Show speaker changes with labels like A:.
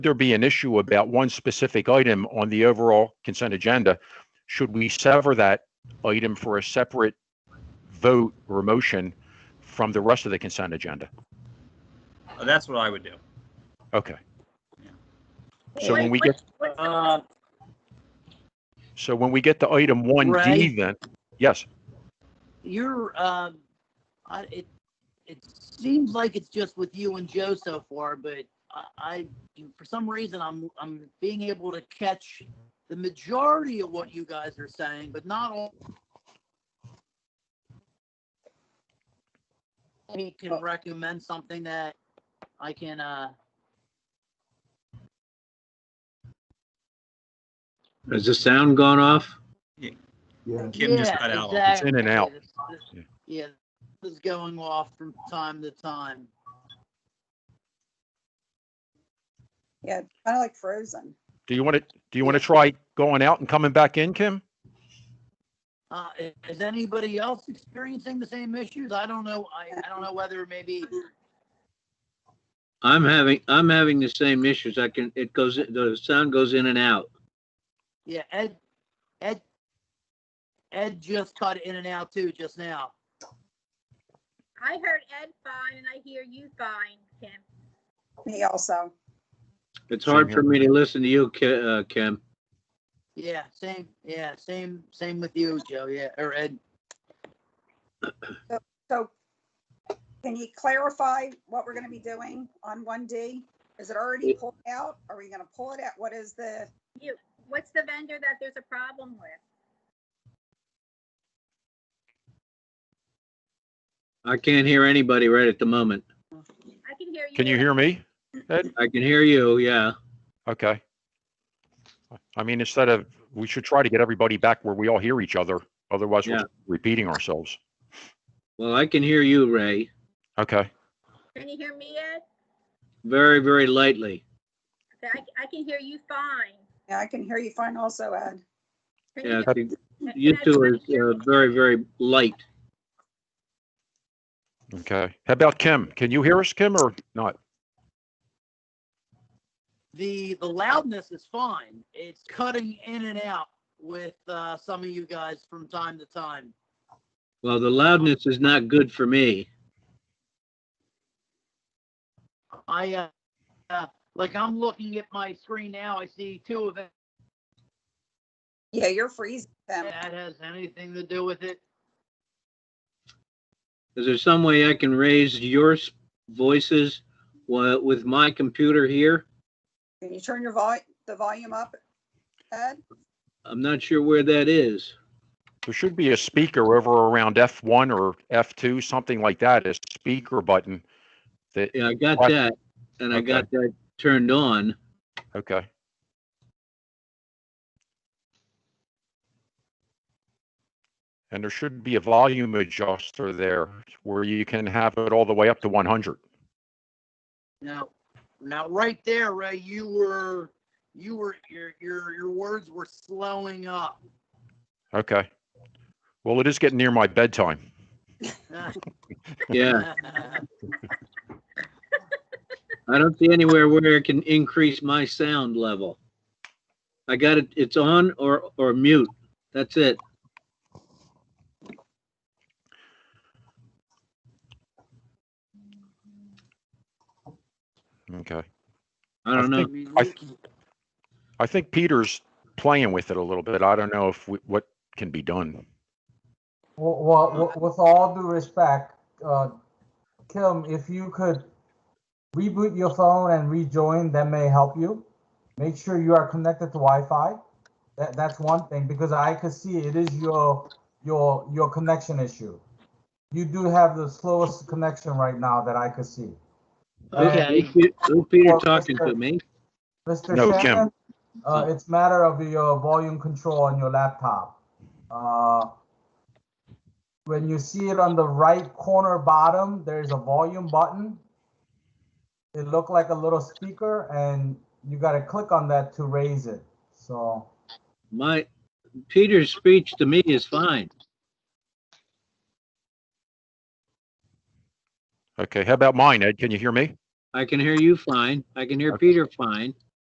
A: there be an issue about one specific item on the overall consent agenda, should we sever that item for a separate vote or motion from the rest of the consent agenda?
B: Uh, That's what I would do.
A: Okay. So
C: Wait,
A: when we
C: wait,
A: get,
C: wait,
B: Uh,
A: so when we get to item one D
C: Right.
A: then, yes,
C: You're, um, I, it, it seems like it's just with you and Joe so far, but I, I, for some reason, I'm, I'm being able to catch the majority of what you guys are saying, but not all. We can recommend something that I can, uh,
D: Has the sound gone off?
B: Kim just
C: Yeah,
B: cut out.
A: It's in and
C: exactly.
A: out.
C: This- this- Yeah, this is going off from time to time.
E: Yeah, kind of like frozen.
A: do you want to, do you want to try going out and coming back in, Kim?
C: Uh, i- is anybody else experiencing the same issues? I don't know. I, I don't know whether maybe,
D: I'm having, I'm having the same issues. I can, it goes, the sound goes in and out.
C: yeah, Ed, Ed, Ed just cut in and out too just now.
F: I heard Ed fine and I hear you fine, Kim.
E: Me also.
D: It's
A: Same
D: hard
A: here.
D: for me to listen to you, Ki- uh, Kim.
C: Yeah, same, yeah, same, same with you, Joe, yeah, or Ed.
E: So can you clarify what we're going to be doing on 1D? Is it already pulled out? Are we going to pull it out? What is the,
F: What's the vendor that there's a problem with?
D: I can't hear anybody right at the moment.
F: I can hear you.
A: Can you hear me?
D: I can hear you, yeah.
A: Okay. I mean, instead of, we should try to get everybody back where we all hear each other. Otherwise, we're
D: Yeah.
A: repeating ourselves.
D: Well, I can hear you, Ray,
A: Okay.
F: Can you hear me, Ed?
D: very, very lightly.
F: Okay, I, I can hear you fine.
E: Yeah, I can hear you fine also, Ed.
F: Can
D: Yeah,
F: you hear-
D: you
F: Ed,
D: two
F: can
D: are
F: you hear
D: uh,
F: me?
D: very, very light.
A: Okay. How about Kim? Can you hear us, Kim, or not?
C: The, the loudness is fine. It's cutting in and out with, uh, some of you guys from time to time.
D: Well, the loudness is not good for me.
C: I, uh, uh, like I'm looking at my screen now, I see two of them.
E: Yeah, you're freezing them.
C: That has anything to do with it.
D: Is there some way I can raise your s- voices wa- with my computer here?
E: Can you turn your vol, the volume up, Ed?
D: I'm not sure where that is.
A: There should be a speaker over around F1 or F2, something like that, a speaker button that,
D: Yeah, I got
A: What?
D: that, and I
A: Okay.
D: got that turned on.
A: okay. And there should be a volume adjuster there where you can have it all the way up to 100.
C: Now, now right there, Ray, you were, you were, your, your, your words were slowing up.
A: Okay. Well, it is getting near my bedtime.
D: Yeah, I don't see anywhere where it can increase my sound level. I got it, it's on or, or mute. That's it.
A: Okay.
D: I don't know.
C: mean,
A: I
C: we-
A: I think Peter's playing with it a little bit. I don't know if we, what can be done.
G: Well, well, with all due respect, uh, Kim, if you could reboot your phone and rejoin, that may help you. Make sure you are connected to Wi-Fi. That, that's one thing, because I could see it is your, your, your connection issue. You do have the slowest connection right now that I could see.
C: Okay,
D: Who Peter talking to me?
G: Mr.
A: No, Kim.
G: Shannon, uh, it's matter of your volume control on your laptop. Uh, When you see it on the right corner bottom, there is a volume button. It looked like a little speaker and you gotta click on that to raise it, so.
D: My, Peter's speech to me is fine.
A: Okay, how about mine, Ed? Can you hear me?
D: I can hear you fine. I can hear Peter fine.